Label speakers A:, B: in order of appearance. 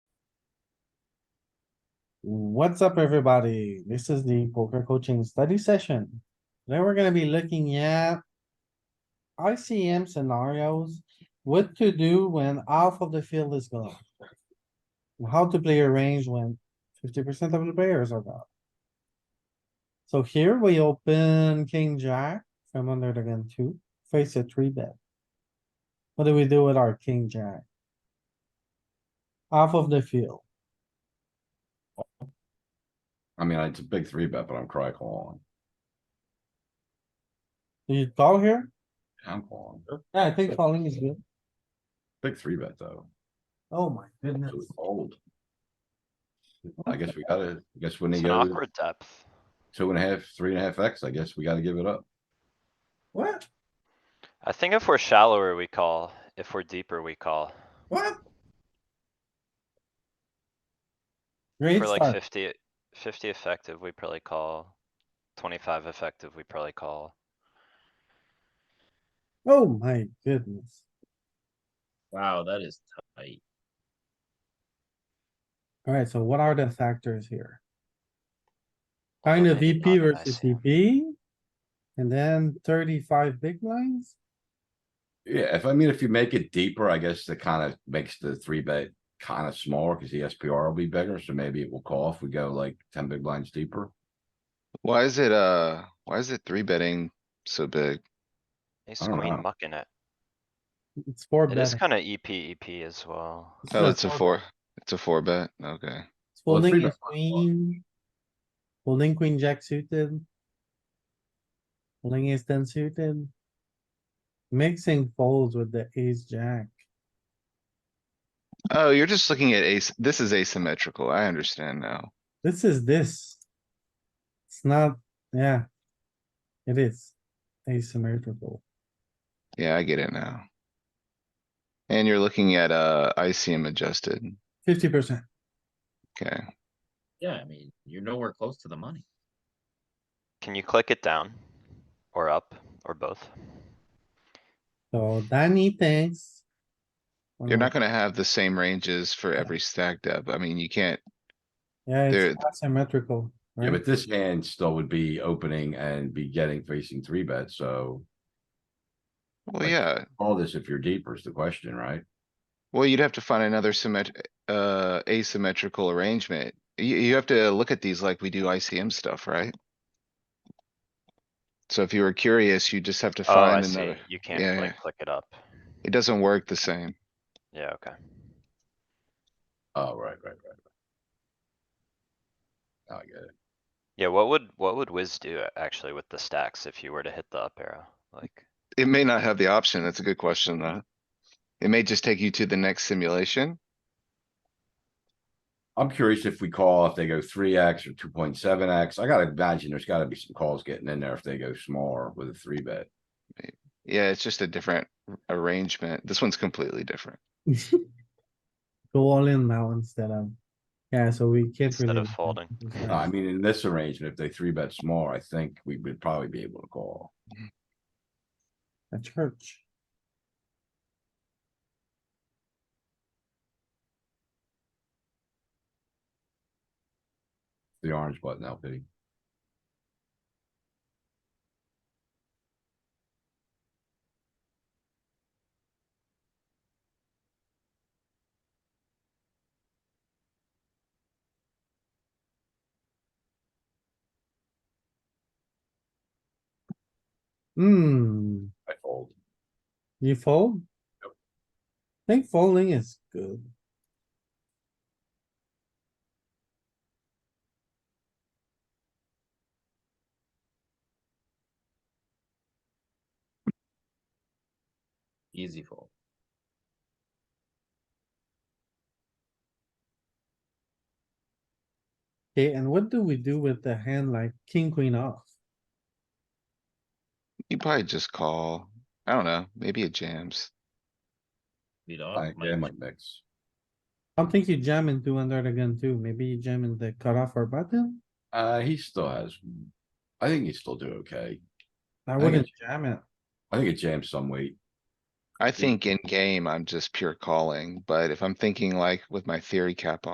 A: What's up, everybody? This is the poker coaching study session. Today we're gonna be looking at ICM scenarios, what to do when half of the field is gone. How to play a range when fifty percent of the players are gone. So here we open king jack from under the gun two, face a three bet. What do we do with our king jack? Half of the field.
B: I mean, it's a big three bet, but I'm cry calling.
A: Do you call here?
B: I'm calling.
A: Yeah, I think calling is good.
B: Big three bet though.
A: Oh my goodness.
B: It was old. I guess we gotta, I guess when they
C: It's an
B: go
C: awkward depth.
B: two and a half, three and a half X, I guess we gotta give it up.
A: What?
C: I think if we're shallower, we call. If we're deeper, we call.
A: What? Great
C: For like
A: start.
C: 50 50 effective, we probably call. Twenty-five effective, we probably call.
A: Oh my goodness.
D: Wow, that is tight.
A: Alright, so what are the factors here?
C: although
A: Kind of
C: maybe
A: VP
C: not in
A: versus
C: ICM.
A: VP. And then thirty-five big blinds.
B: Yeah, if I mean, if you make it deeper, I guess that kinda makes the three bet kinda smaller, cause the SPR will be bigger, so maybe it will call if we go like ten big blinds deeper.
E: Why is it, uh, why is it three betting so big?
C: Ace
B: I don't
C: queen
B: know.
C: mucking it.
A: It's four
C: It is
A: betting.
C: kinda E EP EP as well.
A: It's
E: Oh,
A: not
E: it's a four, it's a four bet, okay.
A: It's
B: Well, three
A: Folding
B: bet
A: is queen. Folding queen jack suited. Folding is ten suited. Mixing folds with the ace jack.
E: Oh, you're just looking at ace, this is asymmetrical, I understand now.
A: This is this. It's not, yeah. It is asymmetrical.
E: Yeah, I get it now. And you're looking at, uh, ICM adjusted,
A: Fifty percent.
E: okay.
D: Yeah, I mean, you're nowhere close to the money.
C: Can you click it down? Or up, or both?
A: So Danny thinks. Mm.
E: You're not gonna have the same ranges for every stacked up, I mean, you can't,
A: Yeah,
E: there-
A: it's asymmetrical.
B: Yeah,
A: right?
B: but this hand still would be opening and be getting facing three bet, so
E: well,
B: Like-
E: yeah,
B: all this if you're deeper is the question, right?
E: well, you'd have to find another symmet- uh, asymmetrical arrangement. You, you have to look at these like we do ICM stuff, right? So if you were curious, you just have to
C: Oh, I
E: find
C: see.
E: another.
C: You
E: Yeah,
C: can't like
E: yeah.
C: click it up.
E: It doesn't work the same.
C: Yeah, okay.
B: Oh, right, right, right. right. I get it.
C: Yeah, what would, what would Wiz do a- actually with the stacks if you were to hit the up arrow? Like,
E: It may not have the option. That's a good question, though. It may just take you to the next simulation.
B: I'm curious if we call, if they go three X or two point seven X. I gotta imagine there's gotta be some calls getting in there if they go smaller with a three bet.
E: Yeah, it's just a different arrangement. This one's completely different.
A: Go all in now instead of, yeah, so we can't
C: Instead
A: really.
C: of folding.
B: No, I mean, in this arrangement, if they three bet small, I think we would probably be able to call.
A: A church.
B: The orange button LP.
A: Hmm,
B: I fold.
A: you fold?
B: Yep.
A: I think folding is good.
D: Easy fold.
A: Okay, and what do we do with the hand like king, queen off?
E: You probably just call. I don't know, maybe it jams.
D: You know,
B: I
D: my-
B: yeah, my mix.
A: I don't think you jam into under the gun too. Maybe you jam in the cutoff or button.
B: Uh, he still has. I think he still do okay.
A: I
B: think
A: wouldn't jam it.
B: I think it jams some weight.
E: I think in game, I'm just pure calling, but if I'm thinking like with my theory cap on.